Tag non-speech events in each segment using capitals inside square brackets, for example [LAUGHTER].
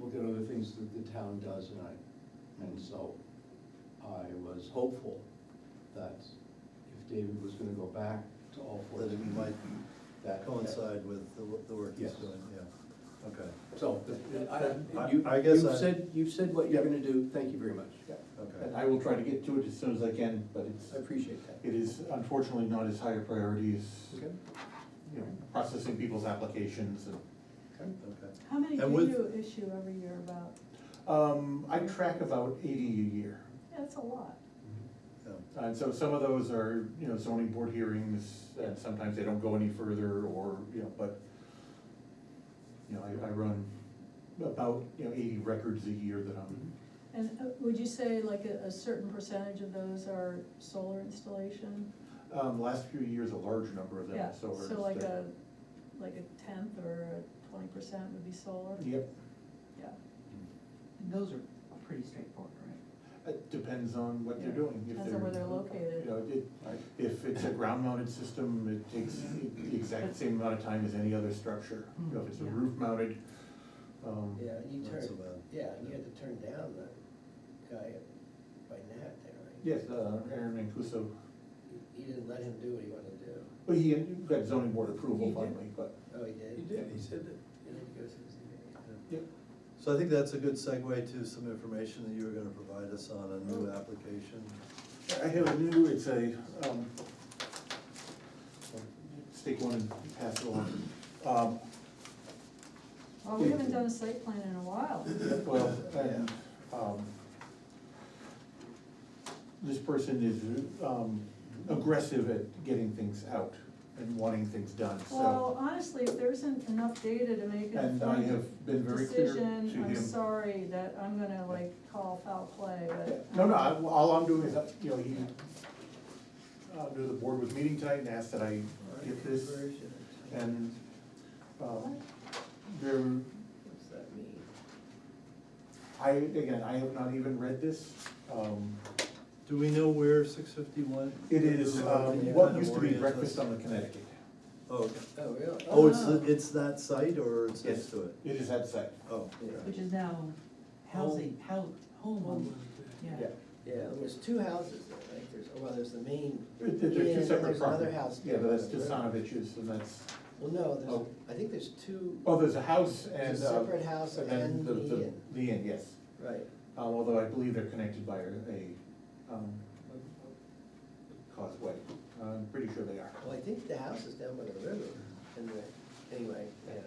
uh, things that the town does, and I, and so I was hopeful that if David was gonna go back to all four. That it might that- coincide with the, wo- the work he's Yes. doing, yeah, okay, So, uh, I, I- you, I guess you've I- said, you've said what you're Yeah. gonna do, thank you very much. And okay. I will try to get to it as soon as I can, but it's, I appreciate that. it is unfortunately not as high a priority as, Okay, you know, processing people's applications and. okay. Okay. How many do And with- you issue every year about? Um, I track about eighty a year, That's a lot. Yeah. and so some of those are, you know, zoning board hearings, and sometimes they don't go any further, or, you know, but, you know, I, I run about, you know, eighty records a year that I'm, And uh, would you say like a, a certain percentage of those are solar installation? Mm-hmm. um, last few years, a large number of them, Yeah, are solar. So like a, so- like a tenth or a twenty percent would be solar? Yep, Yeah. And those are pretty straightforward, right? it depends on what they're Yeah. doing, if they're. Depends on where they're You know, located. it, if it's a ground mounted system, it takes the exact same amount of time as any other structure. You know, if it's a Mm-hmm. Yeah. roof mounted, um, Yeah, you Not turn, so bad. yeah, you had to turn down the guy at- by Nat there, right? yes, uh, Aaron Mancuso, He- He didn't let him do what he wanted to do. but he got zoning board approval He did. finally, but. Oh, he did? he said that. He didn't go to the ZBA. So I think that's a good segue to some information that you were gonna provide us on a new application. I have a new, it's a, um, stick one and pass it along. Um, Well, we haven't done a site plan in [LAUGHS] a while. Well, and, um, this person is, um, aggressive at getting things out and wanting things done, so. Well, honestly, if there isn't enough data to make an And I informed have been very clear to him. decision, I'm sorry that I'm gonna like call foul play, but. No, no, I, well, all I'm doing is, uh, you know, he, uh, knew the board was meeting tonight and asked that I get this, and, um, there, What's that mean? I, again, I have not even read this, um, Do we know where six fifty-one? it is, um, what used to be Breakfast on the Connecticut. Oh, okay. Oh, really? oh, it's, the- it's that site or it's next Yes, to it? It is that site, Oh, Which is now housing, how, home, yeah. yeah. Yeah, there's two houses there, right? There's, oh, well, there's the main, There- there- There's Yeah, two and separate there's another properties. house Yeah, but that's down the Tasanovich's and that's, well, no, Oh. there's, I think there's two, oh, there's a house and. there's a uh, separate house and and then the- the inn. The inn, yes. Right. Uh, Although I believe they're connected by a um, causeway. I'm pretty sure they are. Well, I think the house is down by the river, and the, anyway, yeah.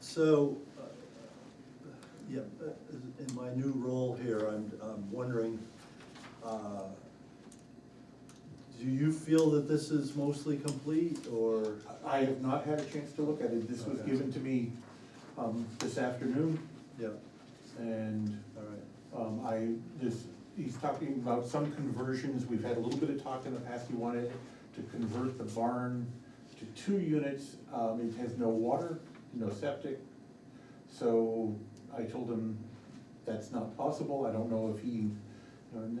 so, uh, yeah, uh, in my new role here, I'm, I'm wondering, uh, do you feel that this is mostly complete or? I have not had a chance to look at it. This was Okay. given to me um, this afternoon Yeah, and all right. Um, I, this, he's talking about some conversions, we've had a little bit of talk in the past, he wanted to convert the barn to two units, um, it has no water, no septic. So I told him that's not possible, I don't know if he, you know, n-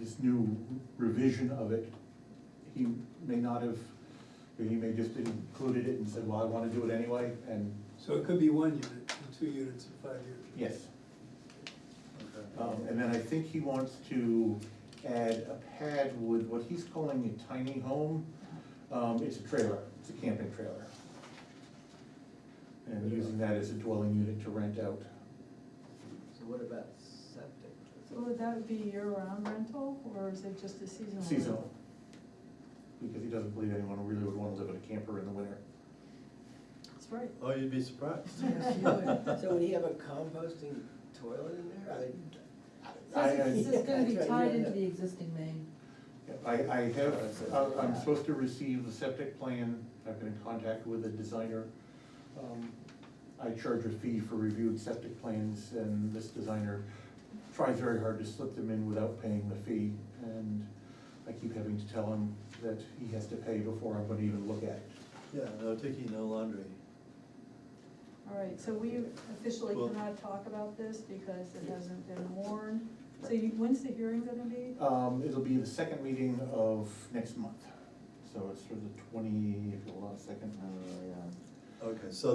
this new revision of it, he may not have, or he may just included it and said, well, I wanna do it anyway, and So it could be one unit, and two units in five years. yes. Okay. Um, and then I think he wants to add a pad with what he's calling a tiny home. Um, it's a trailer, it's a camping trailer. And using that as a dwelling unit to rent out. So what about septic? Would that be year-round rental, or is it just a seasonal? rental? Seasonal. Because he doesn't believe anyone really would wanna live in a camper in the winter. That's right. Oh, you'd be surprised. Yes, you would. [LAUGHS] So would he have a composting toilet in there? or they- I- This is- this I- is gonna be Yeah, that's right, tied yeah, into yeah. the existing main. I, I have, I- I'm supposed to receive the septic plan, I've been in contact with a designer. Um, I charge a fee for reviewed septic plans, and this designer tries very hard to slip them in without paying the fee. And I keep having to tell him that he has to pay before I'm gonna even look at it. Yeah, no taking no laundry. All right, so we officially Well- cannot talk about this because it hasn't been warned. So you, when's the hearing gonna be? Um, it'll be the second meeting of next month, so it's for the twenty, if you hold on a second. uh, Okay, so